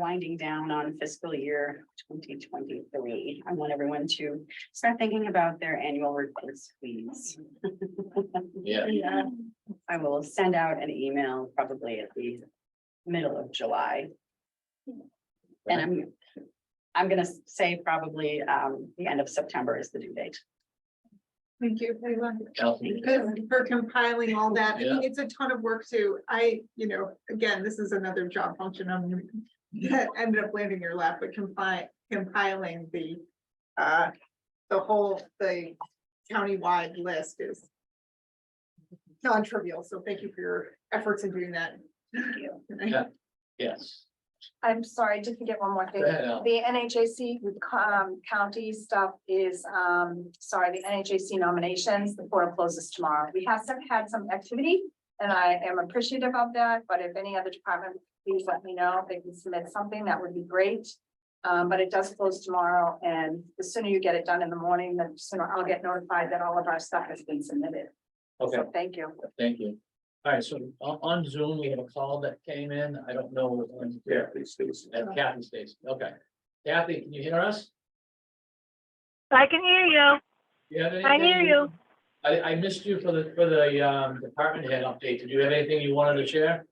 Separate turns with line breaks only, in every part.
winding down on fiscal year twenty twenty-three. I want everyone to start thinking about their annual reports, please.
Yeah.
Yeah. I will send out an email probably at the middle of July. And I'm, I'm gonna say probably um the end of September is the due date.
Thank you everyone
Kelsey,
for compiling all that.
Yeah.
It's a ton of work too. I, you know, again, this is another job function I'm that ended up landing your lap, but compiling, compiling the uh, the whole, the countywide list is non-trivial. So thank you for your efforts in doing that.
Thank you.
Yeah. Yes.
I'm sorry, I did forget one more
Go
thing.
ahead, Al.
The NHAC with co- um, county stuff is, um, sorry, the NHAC nominations, the portal closes tomorrow. We have some, had some activity. And I am appreciative of that, but if any other department, please let me know. If they can submit something, that would be great. Um, but it does close tomorrow and the sooner you get it done in the morning, the sooner I'll get notified that all of our stuff has been submitted.
Okay,
So thank you.
thank you. All right, so on, on Zoom, we have a call that came in. I don't know. Yeah, At Kathy Stacy, okay. Kathy, can you hear us?
I can hear you.
You have
I hear
anything
you.
I, I missed you for the, for the, um, department head update. Did you have anything you wanted to share?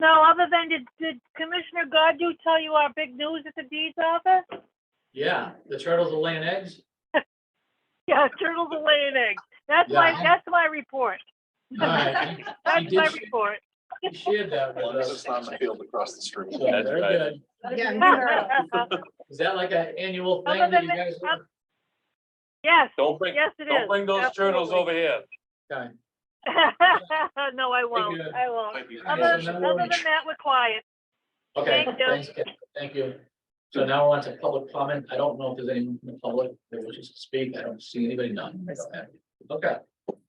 No, other than did, did Commissioner Godu tell you our big news at the deeds office?
Yeah, the turtles are laying eggs?
Yeah, turtles are laying eggs. That's my,
Yeah.
that's my report.
All right, you- you
That's my
did-
report.
you shared that
Well,
with
this
us.
is not my field across the street.
So, Very good.
Yeah.
Is that like an annual thing
Other
that you
than-
guys?
Yes,
Don't bring,
yes, it is.
don't bring those turtles over here.
Okay.
Absolutely. No, I won't.
Thank
I won't.
Okay,
Other,
so now
other
we're-
than that, we're quiet.
Okay,
Thank you.
thanks, Ken. thank you. So now we're on to public comment. I don't know if there's anyone from the public that wishes to speak. I don't see anybody, none. I don't have any. Okay,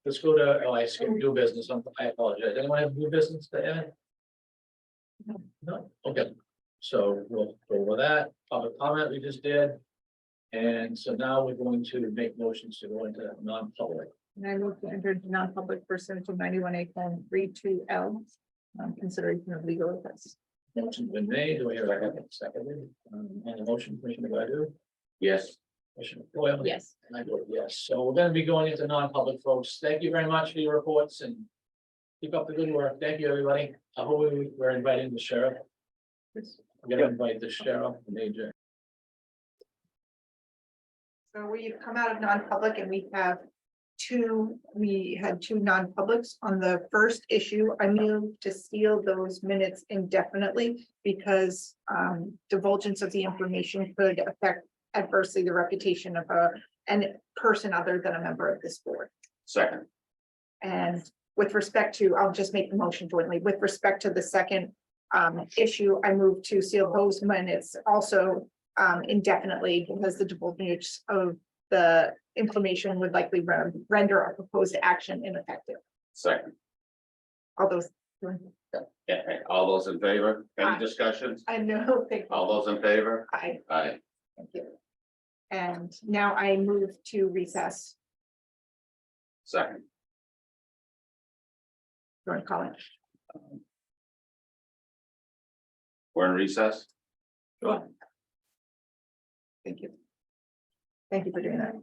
let's go to, oh, I skipped new business. I'm- I apologize. Anyone have new business to add? No, okay, so we'll go over that, public comment we just did. And so now we're going to make motions to go into non-public.
And I move to enter into non-public pursuant to ninety-one A colon three two L, um, consideration of legal offense.
Motion been made, do we have a second? Um, and the motion, Commissioner Godu? Yes. Commissioner Foil?
Yes.
And I vote yes. So we're gonna be going into non-public, folks. Thank you very much for your reports and keep up the good work. Thank you, everybody. I hope we we're inviting the sheriff. We're gonna invite the sheriff, major.
So we've come out of non-public and we have two, we had two non-publics on the first issue. I move to seal those minutes indefinitely because um divulgence of the information could affect adversely the reputation of a an person other than a member of this board.
Second.
And with respect to, I'll just make the motion jointly, with respect to the second um issue, I move to seal those minutes also um indefinitely because the divulgence of the information would likely ren- render a proposed action ineffective.
Second.
All those,
Yeah, hey, all those in favor?
Aye.
Any discussions?
I know, thank you.
All those in favor?
Aye,
Aye.
thank you. And now I move to recess,
Second.
Jordan Collins.
We're in recess?
Sure. Thank you. Thank you for doing that.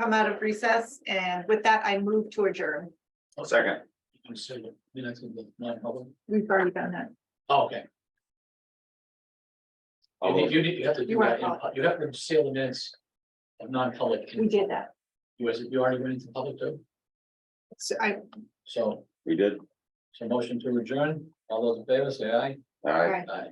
Come out of recess and with that, I move to adjourn.
Second.
I'm sorry, you're not gonna be non-public?
We've already done that.
Oh, Okay, you
All
need,
those-
you need, you have to do
You are
that. in- You have to seal the minutes of non-public.
We did that.
You, was- you already went into public too,
So I,
so,
We did.
so motion to adjourn. All those in favor, say aye.
All right.
I-
Aye.